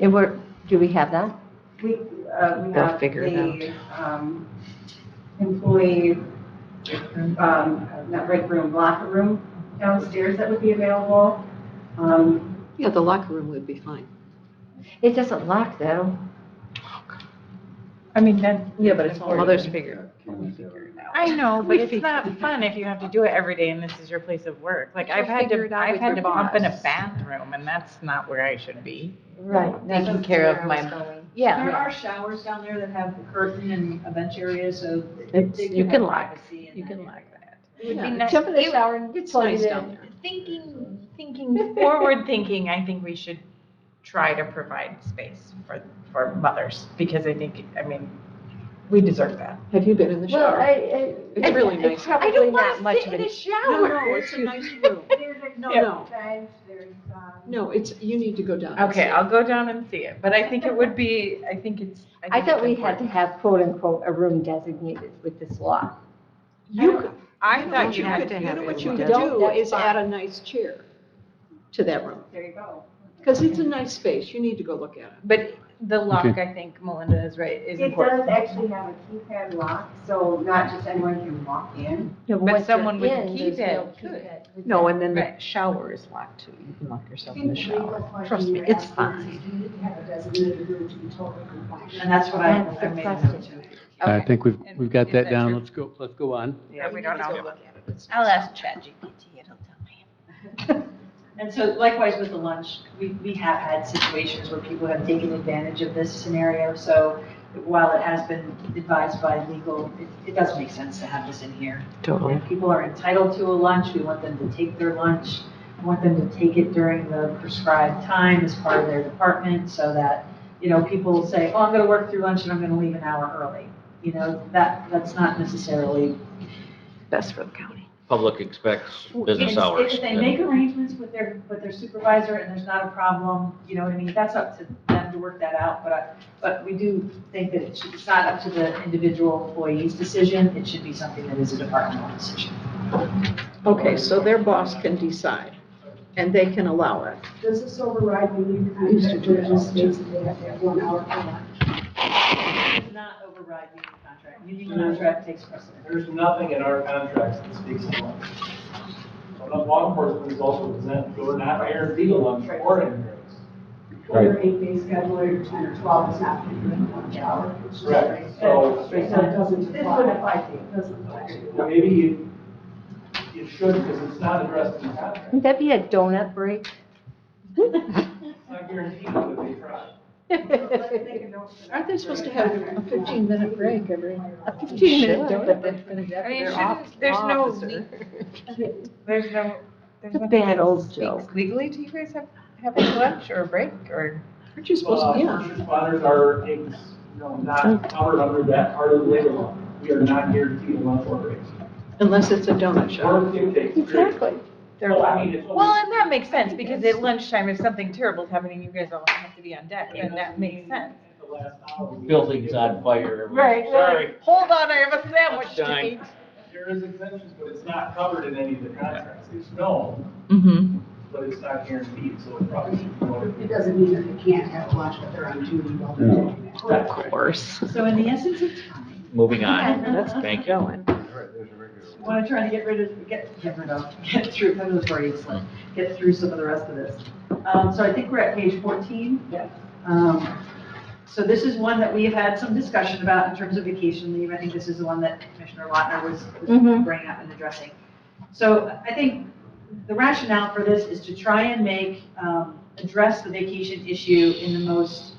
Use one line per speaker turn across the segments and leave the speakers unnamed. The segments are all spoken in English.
And we're, do we have that?
We, uh, we
They'll
have
figure it
the, um, employee, um, not break room, locker room downstairs that would be available. Um,
Yeah, the locker room would be fine.
It doesn't lock though.
I mean, then,
Yeah, but it's all.
Others figure.
I know, but it's not fun if you have to do it every day and this is your place of work. Like,
We'll
I've had
figure
to,
it out
I've
with
had
your
to bump in a
boss.
bathroom, and that's not where I should be.
Right.
Taking care of my-
Yeah.
There are showers down there that have a curtain and a bench area, so.
It's-
they can
you
have
can lock.
privacy in
You
that
can
area.
like that. It would be
Yeah,
nice-
Jump in the
it-
shower and
It's
plug
nice
it
down
in.
there.
Thinking, thinking, forward thinking, I think we should try to provide space for, for mothers, because I think, I mean, we deserve that.
Have you been in the
Well,
shower?
I,
It's
I,
really
it's
nice.
I
probably
don't
not
want
much of
to sit in
a.
a
No,
shower.
Oh,
no, it's a nice room.
There's a
No,
Yeah.
no,
bench, there's, um,
no, it's, you need to go down. and
Okay,
see.
I'll go down and see it, but I think it would be, I think it's.
I
think it's
thought we had to
important.
have quote unquote a room designated with this lock.
You could,
I
what
thought
you could,
you had
you
to have
know
it.
what you
locked.
could
You don't,
do
that's
is
fine.
add a nice chair to that room.
there you go.
Because it's a nice space. You need to go look at it.
But the lock, I think Melinda is right, is
It
important.
does actually have a keypad lock, so not just anyone can walk in.
No,
But
once they're
someone with a
in, there's no
keypad could.
keypad.
No, and then the
Right.
shower is locked too. You can lock yourself in the shower. Trust me, it's fine.
And that's what I,
That's the
I made a
question.
note to.
I
Okay.
think we've,
And
we've got
is
that
that
down.
true?
Let's go, let's go on.
Yeah, we don't know.
I'll ask ChatGPT, it'll tell me.
And so likewise with the lunch, we, we have had situations where people have taken advantage of this scenario. So while it has been advised by legal, it, it does make sense to have this in here.
Totally.
If people are entitled to a lunch, we want them to take their lunch. We want them to take it during the prescribed time as part of their department so that, you know, people say, oh, I'm going to work through lunch and I'm going to leave an hour early. You know, that, that's not necessarily.
Best for the county.
Public expects business
If-
hours.
If they make arrangements with their, with their supervisor and there's not a problem, you know what I mean? That's up to them to work that out, but, I- but we do think that it should- it's not up to the individual employee's decision. It should be something that is a departmental decision.
Okay, so their boss can decide and they can allow it.
Does this override the new
We used to
contract
do
where
it
it
all
just states that they have to have one hour for lunch?
does not override union contract. Union contract takes precedence.
There's nothing in our contracts that speaks to lunch. So the law enforcement is also exempt, so we're not guaranteed a lunch or any breaks.
Or eight day schedule or ten or twelve is not going to be in lunch hour.
Correct. So
So it doesn't
This would
apply.
apply to you.
It doesn't apply to you.
well, maybe you, you should, because it's not addressed in the contract.
Wouldn't that be a donut break?
It's not guaranteed that they try.
Aren't they supposed to have a 15-minute break every?
A 15-minute donut break.
I mean, shouldn't, there's no, le- there's no, there's
The
nothing
bad
that
old
speaks
joke.
Legally, do you guys have, have a lunch or a break or?
Aren't you supposed
Well,
to, yeah.
uh, first responders are, ex- you know, not covered under that part of the labor law. We are not guaranteed a lunch or breaks.
Unless it's a donut shop.
Or dictates.
Exactly.
Well, I mean, it's.
Well, and that makes sense because at lunchtime, if something terrible's happening, you guys all have to be on deck, and that makes sense.
At the last hour, we-
Buildings on fire.
Right.
Sorry.
Hold on, I have a sandwich to
Lunchtime.
eat.
There is exemptions, but it's not covered in any of the contracts. It's known,
Mm-hmm.
but it's not guaranteed, so it probably should be
It
noted.
doesn't mean that they can't have lunch, but they're on duty while they're
No.
doing that.
Of course.
So in the essence of time,
Moving on.
That's
Thank you.
going.
what I'm trying to get rid of, get, get rid of, get through, I'm gonna worry, it's like, get through some of the rest of this. Um, so I think we're at page fourteen.
Yes.
Um, so this is one that we have had some discussion about in terms of vacation leave. I think this is the one that Commissioner Lautner was, was
Mhm.
bringing up and addressing. So I think the rationale for this is to try and make, um, address the vacation issue in the most,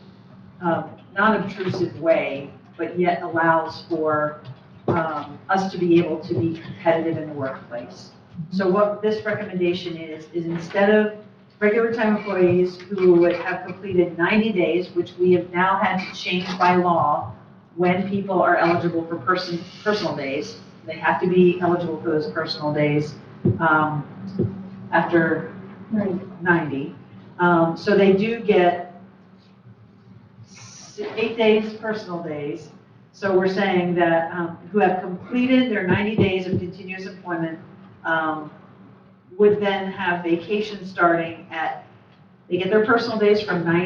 um, non-obtrusive way, but yet allows for, um, us to be able to be competitive in the workplace. So what this recommendation is, is instead of regular time employees who would have completed 90 days, which we have now had to change by law, when people are eligible for person, personal days, they have to be eligible for those personal days, um, after 90. Um, so they do get s- eight days personal days. So we're saying that, um, who have completed their 90 days of continuous employment, um, would then have vacation starting at, they get their personal days from 90